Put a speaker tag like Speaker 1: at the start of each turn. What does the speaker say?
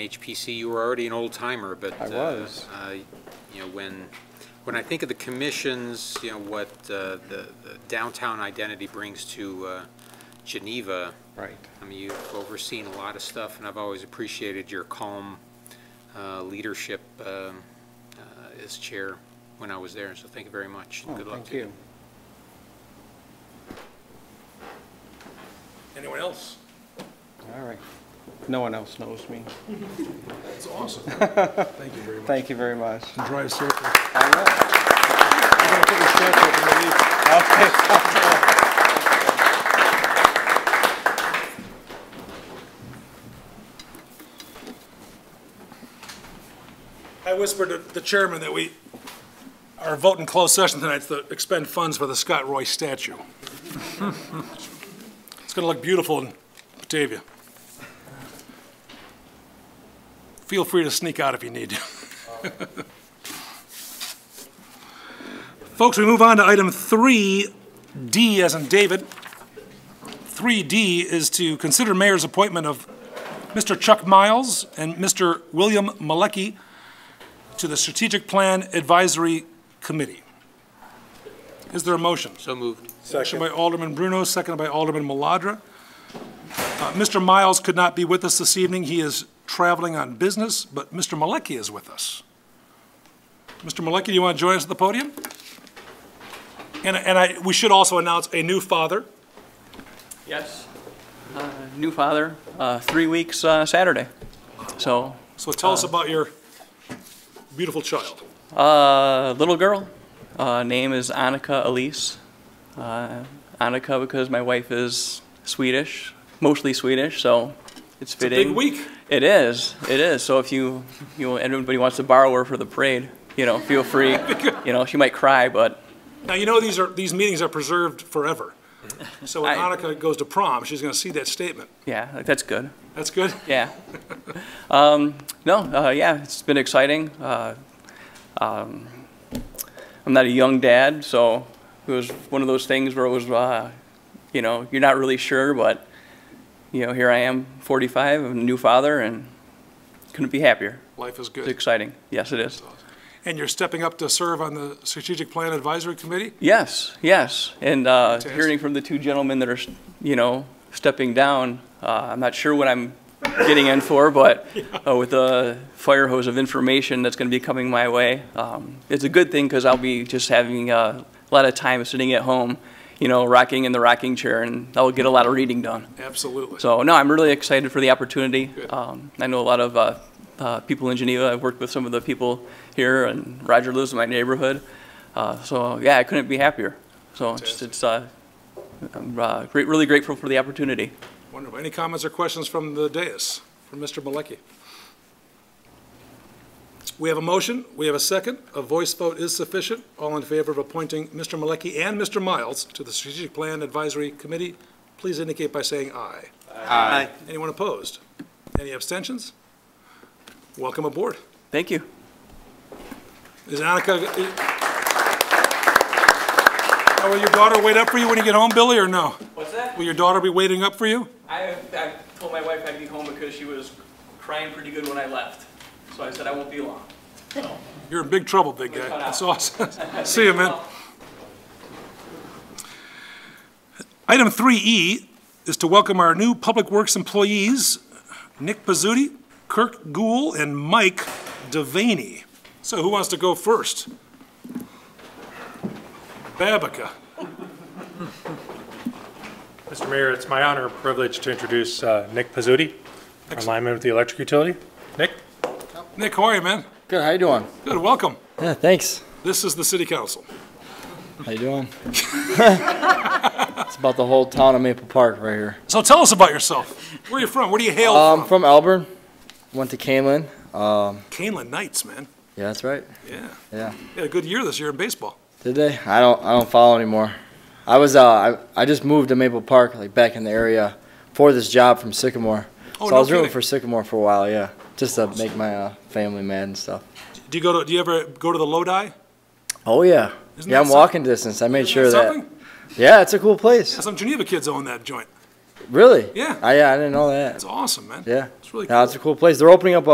Speaker 1: HPC, you were already an old timer, but.
Speaker 2: I
Speaker 1: uh,
Speaker 2: was.
Speaker 1: uh, You know, when, when I think of the commissions, you know, what uh, the the downtown identity brings to uh, Geneva,
Speaker 2: Right.
Speaker 1: I mean, you've overseen a lot of stuff, and I've always appreciated your calm uh, leadership um, uh, as chair when I was there, so thank you very much. and
Speaker 2: Oh,
Speaker 1: Good luck
Speaker 2: thank
Speaker 1: to you.
Speaker 2: you.
Speaker 3: Anyone else?
Speaker 2: All right. No one else knows me.
Speaker 3: That's awesome. Thank you very much.
Speaker 2: Thank you very much.
Speaker 3: And Drive circle. I'm
Speaker 2: I know.
Speaker 3: gonna put your circle up in the leaf. I whispered to the chairman that we our vote in closed session tonight's to expend funds for the Scott Roy statue. It's gonna look beautiful in Batavia. Feel free to sneak out if you need to. Folks, we move on to item 3D, as in David. 3D is to consider mayor's appointment of Mr. Chuck Miles and Mr. William Malecki to the Strategic Plan Advisory Committee. Is there a motion?
Speaker 1: So moved.
Speaker 3: Motion by Alderman Bruno, seconded by Alderman Maladra. Uh, Mr. Miles could not be with us this evening. He is traveling on business, but Mr. Malecki is with us. Mr. Malecki, do you want to join us at the podium? And, and I, we should also announce a new father.
Speaker 4: Yes. Uh, New father, uh, three weeks uh, Saturday. So,
Speaker 3: So tell us about your beautiful child.
Speaker 4: uh, little girl, uh, name is Annika Elise. Uh, Annika because my wife is Swedish, mostly Swedish, so
Speaker 3: It's
Speaker 4: it's
Speaker 3: a
Speaker 4: fitting.
Speaker 3: big week.
Speaker 4: It is, it is. So if you, you know, anybody wants to borrow her for the parade, you know, feel free. You know, she might cry, but
Speaker 3: Now, you know, these are, these meetings are preserved forever. So when
Speaker 4: I-
Speaker 3: Annika goes to prom, she's going to see that statement.
Speaker 4: yeah, like, that's good.
Speaker 3: That's good?
Speaker 4: Yeah. Um, no, uh, yeah, it's been exciting. Uh, um, I'm not a young dad, so it was one of those things where it was, uh, you know, you're not really sure, but, you know, here I am, 45, a new father, and couldn't be happier.
Speaker 3: Life is
Speaker 4: It's
Speaker 3: good.
Speaker 4: exciting. Yes, it is.
Speaker 3: And you're stepping up to serve on the Strategic Plan Advisory Committee?
Speaker 4: Yes, yes. And uh,
Speaker 3: Fantastic.
Speaker 4: hearing from the two gentlemen that are, you know, stepping down, uh, I'm not sure what I'm getting in for, but uh, with the fire hose of information that's going to be coming my way, um, it's a good thing because I'll be just having uh, a lot of time sitting at home, you know, rocking in the rocking chair, and I'll get a lot of reading done.
Speaker 3: Absolutely.
Speaker 4: So, no, I'm really excited for the opportunity.
Speaker 3: Good.
Speaker 4: Um, I know a lot of uh, uh, people in Geneva. I've worked with some of the people here, and Roger lives in my neighborhood. Uh, so, yeah, I couldn't be happier. So, it's,
Speaker 3: Fantastic.
Speaker 4: it's uh, I'm uh, great, really grateful for the opportunity.
Speaker 3: Wonderful. Any comments or questions from the dais, from Mr. Malecki? We have a motion, we have a second, a voice vote is sufficient. All in favor of appointing Mr. Malecki and Mr. Miles to the Strategic Plan Advisory Committee, please indicate by saying aye. Aye. Anyone opposed? Any abstentions? Welcome aboard.
Speaker 4: Thank you.
Speaker 3: Is Annika? is- Now, Will your daughter wait up for you when you get home, Billy, or no?
Speaker 4: What's that?
Speaker 3: Will your daughter be waiting up for you?
Speaker 4: I, I told my wife I'd be home because she was crying pretty good when I left. So, I said I won't be long.
Speaker 3: You're in big trouble, big guy.
Speaker 4: cut out.
Speaker 3: That's awesome. See you, man. Item 3E is to welcome our new Public Works employees, Nick Pizzuti, Kirk Gould, and Mike Devaney. So who wants to go first? Babica.
Speaker 5: Mr. Mayor, it's my honor and privilege to introduce uh, Nick Pizzuti, our lineman with the electric utility. Nick?
Speaker 3: Nick, how are you, man?
Speaker 6: Good. How you doing?
Speaker 3: Good, welcome.
Speaker 6: Yeah, thanks.
Speaker 3: This is the city council.
Speaker 6: How you doing? it's about the whole town of Maple Park right here.
Speaker 3: So tell us about yourself. Where are you from? Where do you hail
Speaker 6: Um,
Speaker 3: from?
Speaker 6: from Elburn, went to Camlin. Um,
Speaker 3: Canlan Knights, man.
Speaker 6: yeah, that's right.
Speaker 3: Yeah.
Speaker 6: Yeah.
Speaker 3: You had a good year this year in baseball.
Speaker 6: Did they? I don't. I don't follow anymore. I was. Uh, I, I just moved to Maple Park, like back in the area, for this job from Sycamore.
Speaker 3: Oh,
Speaker 6: so
Speaker 3: no
Speaker 6: I was
Speaker 3: kidding.
Speaker 6: rooting for Sycamore for a while. Yeah, just to make my uh, family mad and stuff.
Speaker 3: Do you go to? Do you ever go to the Lodi?
Speaker 6: Oh yeah.
Speaker 3: Isn't
Speaker 6: yeah,
Speaker 3: that
Speaker 6: I'm
Speaker 3: some-
Speaker 6: walking distance. I made
Speaker 3: Isn't
Speaker 6: sure
Speaker 3: that
Speaker 6: that.
Speaker 3: something?
Speaker 6: Yeah, it's a cool place.
Speaker 3: Some Geneva kids own that joint.
Speaker 6: Really?
Speaker 3: Yeah.
Speaker 6: I, yeah, I didn't know that.
Speaker 3: That's awesome, man.
Speaker 6: Yeah.
Speaker 3: It's really
Speaker 6: No,
Speaker 3: cool.
Speaker 6: it's a cool place. They're opening up a